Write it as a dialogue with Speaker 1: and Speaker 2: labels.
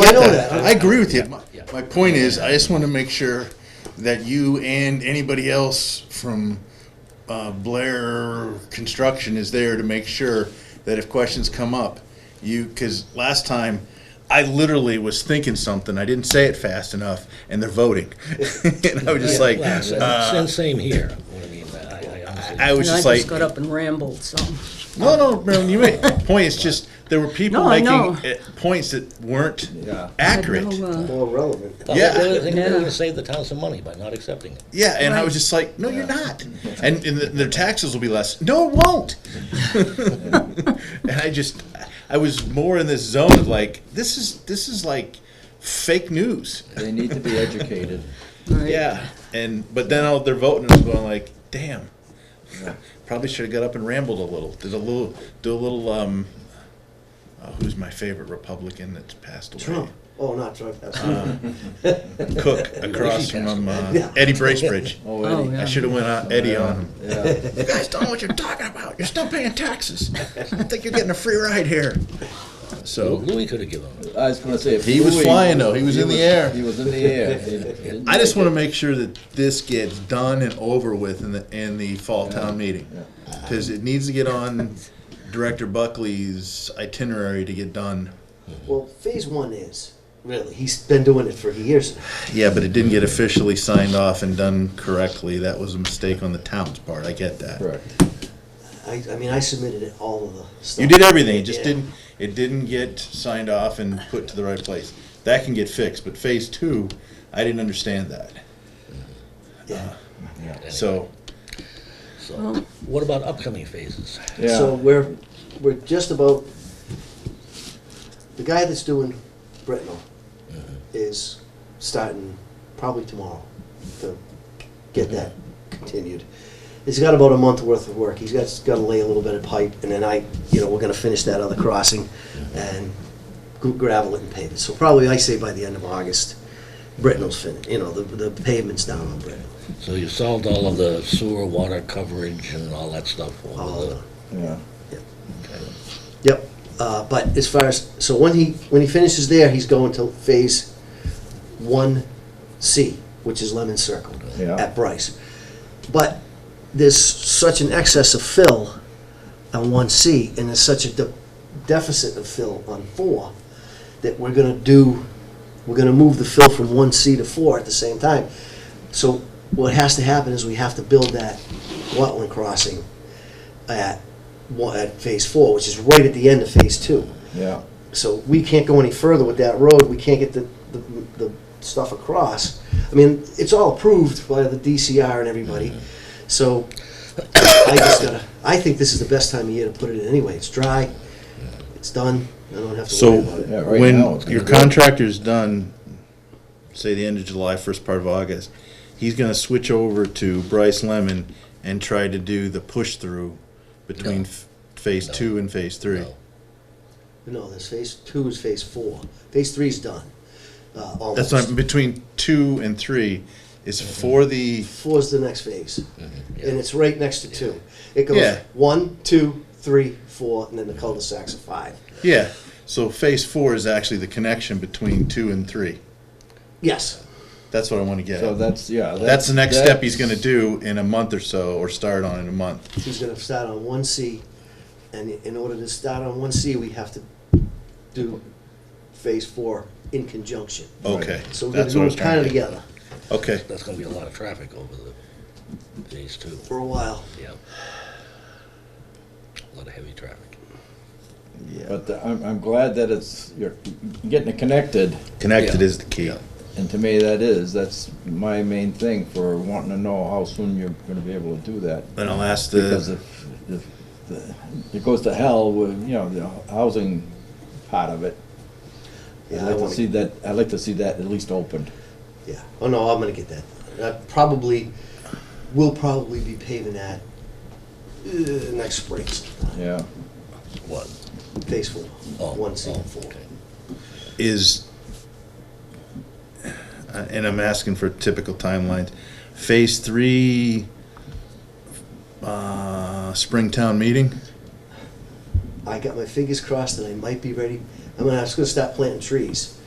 Speaker 1: I
Speaker 2: get
Speaker 1: know
Speaker 2: that.
Speaker 1: that. I agree with you. My,
Speaker 2: Yeah.
Speaker 1: my point is, I just want to make sure that you and anybody else from uh, Blair Construction is there to make sure that if questions come up, you, because last time, I literally was thinking something, I didn't say it fast enough, and they're voting. And I was just like,
Speaker 2: Well,
Speaker 1: uh,
Speaker 2: same- Same here, what I mean, I, I honestly.
Speaker 1: I was
Speaker 3: And I
Speaker 1: just
Speaker 3: just got
Speaker 1: like,
Speaker 3: up and rambled, so.
Speaker 1: no, no, Marilyn, you made, point is just, there were people
Speaker 3: No, I
Speaker 1: making
Speaker 3: know.
Speaker 1: uh, points that weren't
Speaker 4: Yeah.
Speaker 1: accurate.
Speaker 3: No, uh,
Speaker 4: More relevant.
Speaker 2: Well,
Speaker 1: Yeah.
Speaker 2: The other thing, they're
Speaker 3: Yeah.
Speaker 2: gonna save the town some money by not accepting it.
Speaker 1: Yeah, and I was just like, no, you're not. And, and the, their taxes will be less. No, it won't. and I just, I was more in this zone of like, this is this is like fake news.
Speaker 4: They need to be educated.
Speaker 3: right.
Speaker 1: Yeah, and but then all, they're voting and I was going like, damn, probably should have got up and rambled a little. Did a little, do a little. um uh, Who's my favorite Republican that's passed away?
Speaker 5: Trump. Oh, not Trump.
Speaker 4: Uh.
Speaker 5: That's
Speaker 1: Cook across from uh,
Speaker 5: Yeah.
Speaker 1: Eddie Bracebridge.
Speaker 3: Oh,
Speaker 4: Eddie.
Speaker 1: I
Speaker 3: yeah.
Speaker 1: should have went on Eddie on him.
Speaker 4: Yeah.
Speaker 1: You guys don't know what you're talking about. You're still paying taxes. I think you're getting a free ride here. So
Speaker 2: Louis could have given them.
Speaker 4: I was gonna say. if
Speaker 1: He was
Speaker 4: Louis-
Speaker 1: flying, though. He was in the air.
Speaker 4: He was in the air. He didn't
Speaker 1: I just
Speaker 4: make
Speaker 1: want to make sure that this gets done and over with in the in the fall town meeting because it needs to get on Director Buckley's itinerary to get done.
Speaker 5: well, phase one is really. He's been doing it for years. now.
Speaker 1: Yeah, but it didn't get officially signed off and done correctly. That was a mistake on the town's part. I get that.
Speaker 4: it. Correct.
Speaker 5: I, I mean, I submitted it, all of the stuff.
Speaker 1: You did everything. It just
Speaker 5: Yeah.
Speaker 1: didn't. It didn't get signed off and put to the right place. That can get fixed. But phase two, I didn't understand that.
Speaker 5: Yeah.
Speaker 1: So
Speaker 2: So, what about upcoming phases?
Speaker 4: Yeah.
Speaker 5: So we're we're just about the guy that's doing Britnell
Speaker 4: Mm-hmm.
Speaker 5: is starting probably tomorrow to get that continued. He's got about a month worth of work. He's got got to lay a little bit of pipe, and then I, you know, we're going to finish that other crossing
Speaker 4: Mm-hmm.
Speaker 5: and gr- gravel it and pave it. So probably I say by the end of August, Britnell's finished. You know, the the pavement's down on Britnell.
Speaker 2: So you solved all of the sewer, water coverage and all that stuff? all of
Speaker 5: All
Speaker 2: the-
Speaker 5: done.
Speaker 4: Yeah.
Speaker 5: Yep, uh, but as far as, so when he, when he finishes there, he's going to phase one C, which is Lemon Circle
Speaker 4: Yeah.
Speaker 5: at Bryce. But there's such an excess of fill on one C, and there's such a de- deficit of fill on four, that we're gonna do, we're gonna move the fill from one C to four at the same time. So what has to happen is we have to build that wetland crossing at, one- at phase four, which is right at the end of phase two.
Speaker 4: Yeah.
Speaker 5: So we can't go any further with that road, we can't get the, the, the stuff across. I mean, it's all approved by the DCR and everybody, so I just gotta, I think this is the best time of year to put it in anyway, it's dry, it's done, I don't have to
Speaker 1: So
Speaker 5: worry about it.
Speaker 4: Yeah, right now
Speaker 1: when
Speaker 4: it's gonna
Speaker 1: your
Speaker 4: be good.
Speaker 1: contractor's done, say the end of July, first part of August, he's gonna switch over to Bryce Lemon and try to do the push-through between f- phase
Speaker 2: No.
Speaker 1: two and phase three.
Speaker 2: No.
Speaker 5: No, there's phase two is phase four, phase three's done, uh,
Speaker 1: That's
Speaker 5: almost.
Speaker 1: not, between two and three is
Speaker 2: Mm-hmm.
Speaker 1: for the,
Speaker 5: Four's the next phase,
Speaker 2: mhm, yeah.
Speaker 5: and it's right next to two. It goes
Speaker 1: Yeah.
Speaker 5: one, two, three, four, and then the cul-de-sacs are five.
Speaker 1: yeah, so phase four is actually the connection between two and three.
Speaker 5: Yes,
Speaker 1: That's what I wanna get
Speaker 4: So
Speaker 1: at.
Speaker 4: that's yeah.
Speaker 1: That's the next step he's gonna
Speaker 4: that's-
Speaker 1: do in a month or so, or start on in a month.
Speaker 5: he's gonna start on one C, and in order to start on one C, we have to do phase four in conjunction.
Speaker 1: Okay.
Speaker 5: So we're gonna
Speaker 1: that's what
Speaker 5: do
Speaker 1: I was
Speaker 5: them
Speaker 1: trying
Speaker 5: kinda
Speaker 1: to get-
Speaker 5: together
Speaker 1: Okay,
Speaker 2: That's gonna be a lot of traffic over the phase two,
Speaker 5: for a while.
Speaker 2: yeah. A lot of heavy traffic.
Speaker 4: But uh, I'm, I'm glad that it's you're getting it connected,
Speaker 1: connected
Speaker 2: Yeah.
Speaker 1: is the key.
Speaker 4: and to me that is that's my main thing for wanting to know how soon you're going to be able to do that.
Speaker 1: Then I'll ask
Speaker 4: Because
Speaker 1: the,
Speaker 4: if, if the- it goes to hell with, you know, the housing part of it, I'd
Speaker 5: Yeah, I
Speaker 4: like to
Speaker 5: wanna-
Speaker 4: see that, I'd like to see that at least opened.
Speaker 5: Yeah. Oh no, I'm gonna get that. I probably, we'll probably be paving that uh, next spring,
Speaker 4: Yeah,
Speaker 2: What?
Speaker 5: phase four,
Speaker 2: Oh,
Speaker 5: one C
Speaker 2: oh,
Speaker 5: four.
Speaker 2: okay.
Speaker 1: is, uh, and I'm asking for typical timelines, phase three, uh, Springtown meeting?
Speaker 5: I got my fingers crossed that I might be ready. I'm gonna, I was gonna start planting trees.